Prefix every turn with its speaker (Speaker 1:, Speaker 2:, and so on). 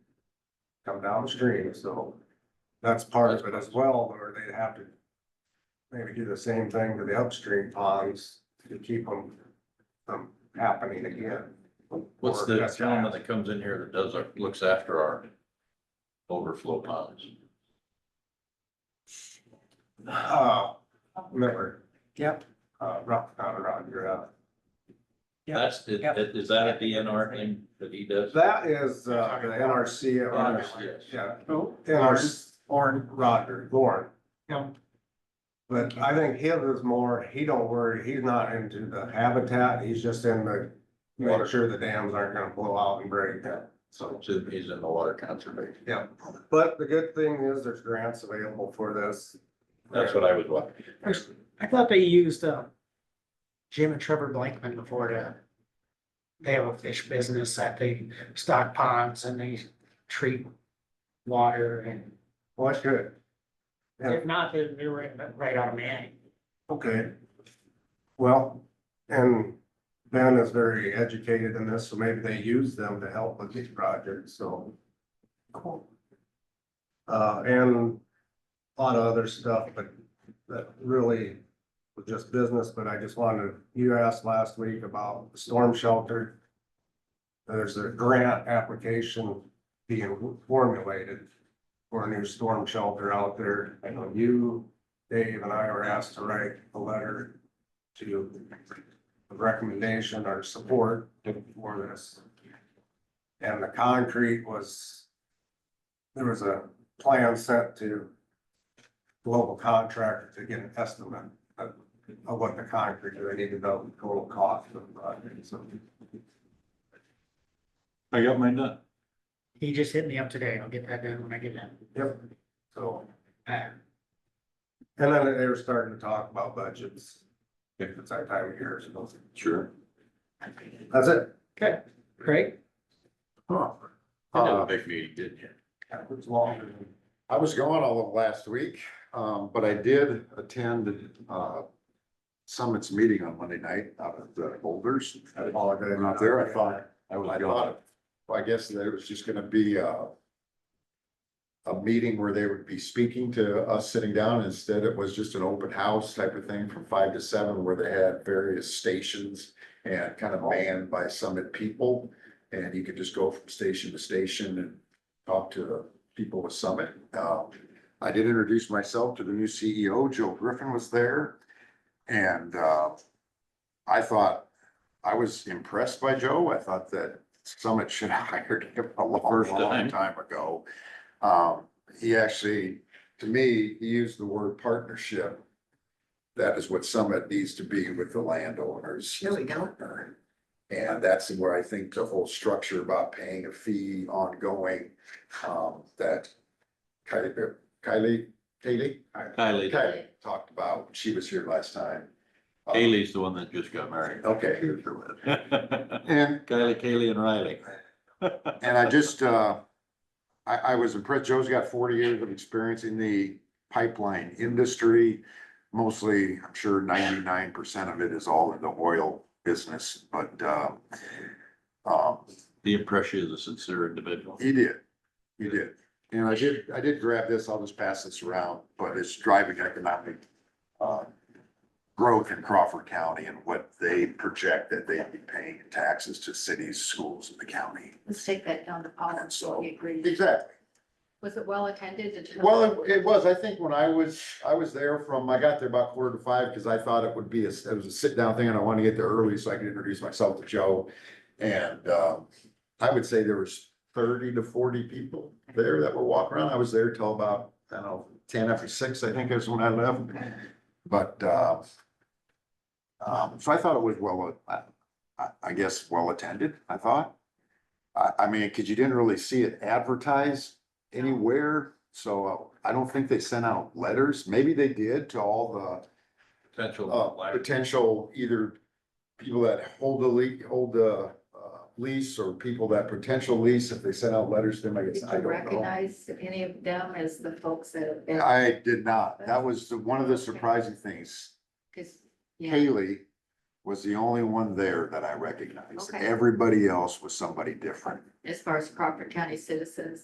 Speaker 1: come downstream, so that's part of it as well, or they'd have to maybe do the same thing to the upstream ponds to keep them from happening again.
Speaker 2: What's
Speaker 1: Or
Speaker 2: the
Speaker 1: just
Speaker 2: gentleman
Speaker 1: ask.
Speaker 2: that comes in here that does, our- looks after our overflow ponds?
Speaker 1: Uh, remember.
Speaker 3: Yep.
Speaker 1: Uh, rock, not rock, you're out.
Speaker 3: Yeah.
Speaker 2: That's, is
Speaker 3: Yeah.
Speaker 2: is that a DNR thing that he does?
Speaker 1: That is, uh, the NRC. at Roger.
Speaker 2: NRCS.
Speaker 1: Yeah,
Speaker 3: Oh,
Speaker 1: NRC,
Speaker 3: Lauren.
Speaker 1: Roger, Lauren.
Speaker 3: Yeah.
Speaker 1: But I think his is more, he don't worry, he's not into the habitat, he's just in the, making sure the dams aren't gonna blow out and break so.
Speaker 2: So he's in the water conservation.
Speaker 1: Yeah, but the good thing is there's grants available for this.
Speaker 2: That's what I was wondering.
Speaker 3: I thought they used, uh, Jim and Trevor Blankman before to. They have a fish business that they stock ponds and they treat water and
Speaker 1: Well, that's good. Yeah.
Speaker 3: if not, they're, they're right, right out of Manning.
Speaker 1: Okay. Well, and Ben is very educated in this, so maybe they use them to help with these projects, so. Cool. Uh, and a lot of other stuff, but that really was just business, but I just wanted, you asked last week about storm shelter. There's a grant application being formulated for a new storm shelter out there. I know you Dave and I were asked to write a letter to a recommendation or support for this. And the concrete was, there was a plan sent to global contractor to get an estimate of, of what the concrete, they needed to know the total cost of the project, so.
Speaker 2: I got mine done.
Speaker 3: He just hit me up today. I'll get that done when I get in.
Speaker 1: Yep, so,
Speaker 3: Uh,
Speaker 1: and then they were starting to talk about budgets. If it's that time of year, so
Speaker 2: Sure.
Speaker 1: that's it.
Speaker 3: Craig?
Speaker 2: You had
Speaker 4: Uh,
Speaker 2: a big meeting, didn't you?
Speaker 1: That was longer than.
Speaker 4: I was gone all of last week, um, but I did attend, uh, Summit's meeting on Monday night out at the Boulders.
Speaker 1: I apologize.
Speaker 4: Not there, I thought,
Speaker 2: I was
Speaker 4: I
Speaker 2: gone.
Speaker 4: thought, I guess that it was just gonna be, uh, a meeting where they would be speaking to us sitting down. Instead, it was just an open house type of thing from five to seven where they had various stations and kind of manned by Summit people. And you could just go from station to station and talk to people with Summit. Uh, I did introduce myself to the new CEO, Joe Griffin was there. And uh, I thought, I was impressed by Joe. I thought that Summit should have hired him a long,
Speaker 2: First time.
Speaker 4: long time ago. Um, He actually, to me, he used the word partnership. That is what Summit needs to be with the landowners.
Speaker 3: Here we go.
Speaker 4: And that's where I think the whole structure about paying a fee ongoing, um, that Kylie, er, Kylie, Kaylee?
Speaker 2: Kylie,
Speaker 4: Kylie talked about, when she was here last time. Uh,
Speaker 2: Kaylee's the one that just got married.
Speaker 4: Okay,
Speaker 2: Kylie,
Speaker 4: and,
Speaker 2: Kaylee and Riley.
Speaker 4: and I just, uh, I, I was impressed, Joe's got forty years of experience in the pipeline industry. Mostly, I'm sure ninety-nine percent of it is all in the oil business, but, uh, um,
Speaker 2: The impression is a sincere individual.
Speaker 4: He did, he did. And I did, I did grab this, I'll just pass this around, but it's driving economic uh, growth in Crawford County and what they project that they'd be paying in taxes to cities, schools, and the county.
Speaker 5: Let's take that down to Paul,
Speaker 4: And so-
Speaker 5: we agree.
Speaker 4: Exactly.
Speaker 5: Was it well attended? Did you-
Speaker 4: Well, it- it was, I think when I was, I was there from, I got there about quarter to five, because I thought it would be, a it was a sit-down thing, and I wanted to get there early so I could introduce myself to Joe. And um, I would say there was thirty to forty people there that were walking around. I was there till about, I don't know, ten after six, I think is when I left. But uh, um, so I thought it was well, I, I- I guess, well-attended, I thought. I, I mean, because you didn't really see it advertised anywhere, so uh, I don't think they sent out letters. Maybe they did to all the
Speaker 2: Potential.
Speaker 4: uh,
Speaker 2: life.
Speaker 4: potential either people that hold the lease, hold the, uh, lease or people that potential lease, if they sent out letters to them, I
Speaker 5: Did
Speaker 4: guess, I
Speaker 5: you
Speaker 4: don't know.
Speaker 5: recognize any of them as the folks that have been?
Speaker 4: I did not. That was the- one of the surprising things.
Speaker 5: 'Cause, yeah,
Speaker 4: Haley was the only one there that I recognized.
Speaker 5: Okay.
Speaker 4: Everybody else was somebody different.
Speaker 5: as far as Crawford County citizens